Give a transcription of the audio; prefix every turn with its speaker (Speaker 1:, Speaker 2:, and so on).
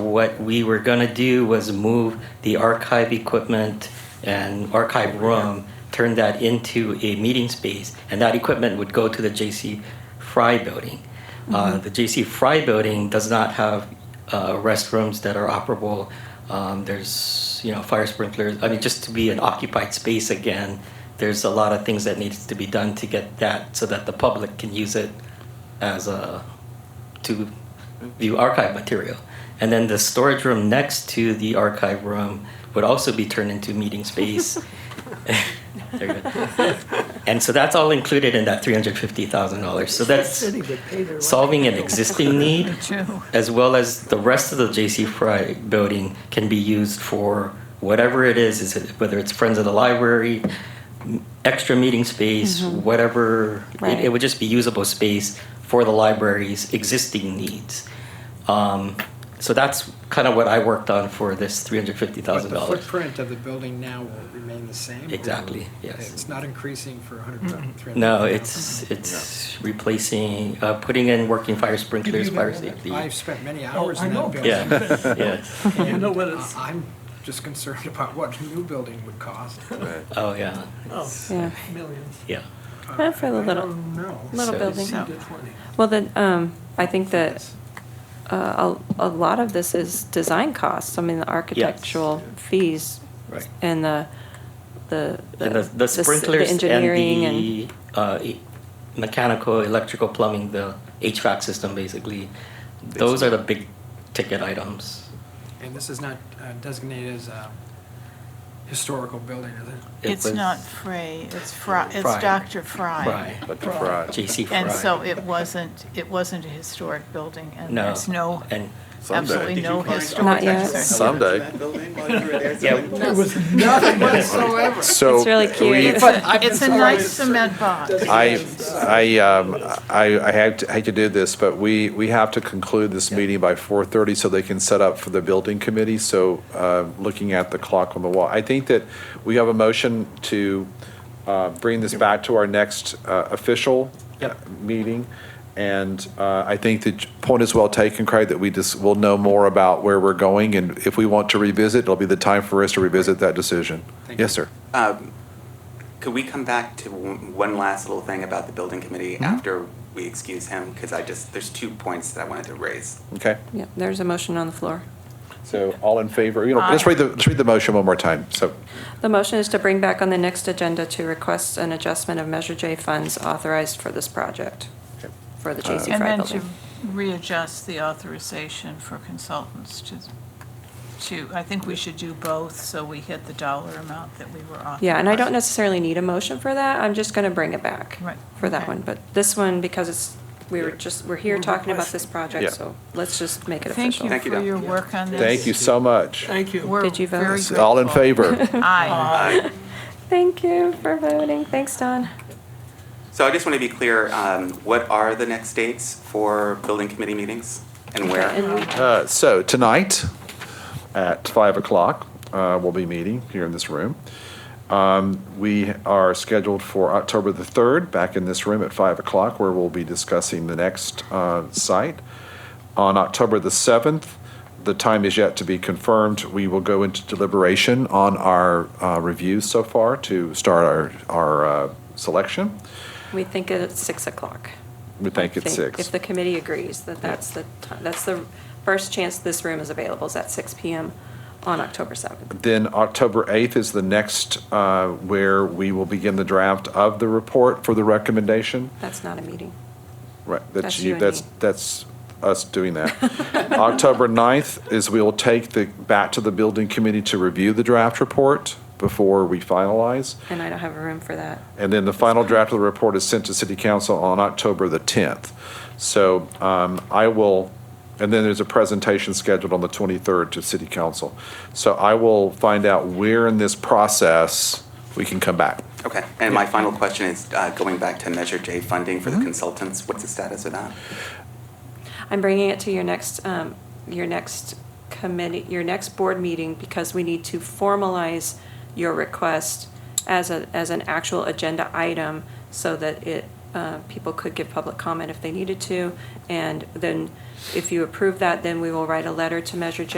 Speaker 1: what we were gonna do was move the archive equipment and archive room, turn that into a meeting space, and that equipment would go to the J.C. Fry building. Uh, The J.C. Fry building does not have uh, restrooms that are operable. Um, There's, you know, fire sprinklers, I mean, just to be an occupied space again, there's a lot of things that needs to be done to get that, so that the public can use it as a, to view archive material. And then the storage room next to the archive room would also be turned into meeting space. There you go. And so that's all included in that three hundred fifty thousand dollars. So that's solving an existing need as well as the rest of the J.C. Fry building can be used for whatever it is, is it, whether it's Friends of the Library, m- extra meeting space, whatever. It, it
Speaker 2: Right.
Speaker 1: would just be usable space for the library's existing needs. Um, so that's kind of what I worked on for this three hundred fifty
Speaker 3: But
Speaker 1: thousand
Speaker 3: the
Speaker 1: dollars.
Speaker 3: footprint of the building now will remain the same? or
Speaker 1: Exactly, yes.
Speaker 3: It's not increasing for 100,000?
Speaker 1: No, it's it's replacing, uh, putting in working fire sprinklers, fire safety.
Speaker 3: I've spent many
Speaker 4: Oh,
Speaker 3: hours
Speaker 4: I
Speaker 3: in
Speaker 4: know.
Speaker 3: that building.
Speaker 1: Yeah, yes.
Speaker 4: I know what
Speaker 3: Uh,
Speaker 4: it's,
Speaker 3: I'm just concerned about what a new building would cost.
Speaker 1: Oh yeah,
Speaker 4: oh,
Speaker 2: Yeah,
Speaker 4: millions.
Speaker 1: yeah.
Speaker 3: Uh,
Speaker 2: Well, for the little-
Speaker 3: No.
Speaker 2: little
Speaker 1: So-
Speaker 2: building.
Speaker 4: Seed to 20.
Speaker 2: Well, then, um, I think that uh, a, a lot of this is design costs. I mean, the architectural fees
Speaker 1: Right.
Speaker 2: and the, the.
Speaker 1: And the, the
Speaker 2: s-
Speaker 1: sprinklers and
Speaker 2: engineering
Speaker 1: the uh, e- mechanical, electrical, plumbing, the HVAC system, basically. Those are the big ticket items.
Speaker 3: And this is not uh, designated as a historical building, is it?
Speaker 1: It
Speaker 5: It's
Speaker 1: was
Speaker 5: not Frey, it's Fry,
Speaker 1: Fry.
Speaker 5: it's Dr. Fry.
Speaker 1: Fry,
Speaker 6: Dr. Fry.
Speaker 1: JC Fry.
Speaker 5: And so it wasn't, it wasn't a historic building, and
Speaker 1: No.
Speaker 5: there's no,
Speaker 1: And,
Speaker 6: Someday.
Speaker 5: absolutely no
Speaker 2: Not
Speaker 5: historic.
Speaker 2: yet.
Speaker 5: exercise.
Speaker 6: Someday.
Speaker 1: yeah,
Speaker 6: So
Speaker 2: It's really cute.
Speaker 5: It's a- It's a nice cement box.
Speaker 6: I, I, um, I, I hate to- hate to do this, but we, we have to conclude this meeting by 4:30 so they can set up for the building committee. So uh, looking at the clock on the wall, I think that we have a motion to uh, bring this back to our next uh, official meeting. And uh, I think the point is well taken, Craig, that we just will know more about where we're going. And if we want to revisit, it'll be the time for us to revisit that decision.
Speaker 3: Thank you.
Speaker 6: Yes, sir.
Speaker 7: Um, Could we come back to one one last little thing about the building committee
Speaker 2: Mm-hmm.
Speaker 7: after we excuse him? Because I just, there's two points that I wanted to raise.
Speaker 6: Okay.
Speaker 2: Yeah, there's a motion on the floor.
Speaker 6: So all in favor, you know, let's read the, let's read the motion one more time. So,
Speaker 2: The motion is to bring back on the next agenda to request an adjustment of Measure J funds authorized for this project,
Speaker 6: Okay.
Speaker 2: for the J.C.
Speaker 5: And
Speaker 2: Fry
Speaker 5: then to
Speaker 2: building.
Speaker 5: readjust the authorization for consultants to, to, I think we should do both, so we hit the dollar amount that we were authorized.
Speaker 2: Yeah, and I don't necessarily need a motion for that, I'm just gonna bring it back.
Speaker 5: Right,
Speaker 2: For that
Speaker 5: okay.
Speaker 2: one, but this one, because it's, we were just, we're here talking about this
Speaker 6: Yeah.
Speaker 2: project, so let's just make it
Speaker 5: Thank
Speaker 2: official.
Speaker 5: you
Speaker 7: Thank you,
Speaker 5: for
Speaker 7: Don.
Speaker 5: your work on this.
Speaker 6: thank you so much.
Speaker 4: Thank you.
Speaker 5: We're
Speaker 2: Did you vote?
Speaker 5: very grateful.
Speaker 6: All in favor?
Speaker 5: Aye.
Speaker 2: Thank you for voting, thanks, Don.
Speaker 7: So I just want to be clear, um, what are the next dates for building committee meetings and where?
Speaker 2: And we-
Speaker 6: Uh, So tonight, at 5 o'clock, uh, we'll be meeting here in this room. Um, We are scheduled for October the 3rd, back in this room at 5 o'clock, where we'll be discussing the next uh, site. On October the 7th, the time is yet to be confirmed, we will go into deliberation on our uh, reviews so far to start our, our uh, selection.
Speaker 2: We think it's six o'clock.
Speaker 6: We think it's
Speaker 2: think- If
Speaker 6: six.
Speaker 2: the committee agrees that that's the, ti- that's the first chance this room is available is at six PM on October seventh.
Speaker 6: Then October 8th is the next uh, where we will begin the draft of the report for the recommendation.
Speaker 2: That's not a meeting.
Speaker 6: Right,
Speaker 2: That's
Speaker 6: that's
Speaker 2: you
Speaker 6: you,
Speaker 2: and
Speaker 6: that's,
Speaker 2: me.
Speaker 6: that's us doing that. October 9th is we will take the, back to the building committee to review the draft report before we finalize.
Speaker 2: And I don't have a room for that.
Speaker 6: And then the final draft of the report is sent to city council on October the 10th. So um, I will, and then there's a presentation scheduled on the 23rd to city council. So I will find out where in this process we can come back.
Speaker 7: Okay, and my final question is, uh, going back to Measure J funding for the
Speaker 2: Mm-hmm.
Speaker 7: consultants, what's the status of that?
Speaker 2: I'm bringing it to your next, um, your next committee, your next board meeting, because we need to formalize your request as a, as an actual agenda item, so that it, uh, people could give public comment if they needed to. And then, if you approve that, then we will write a letter to Measure J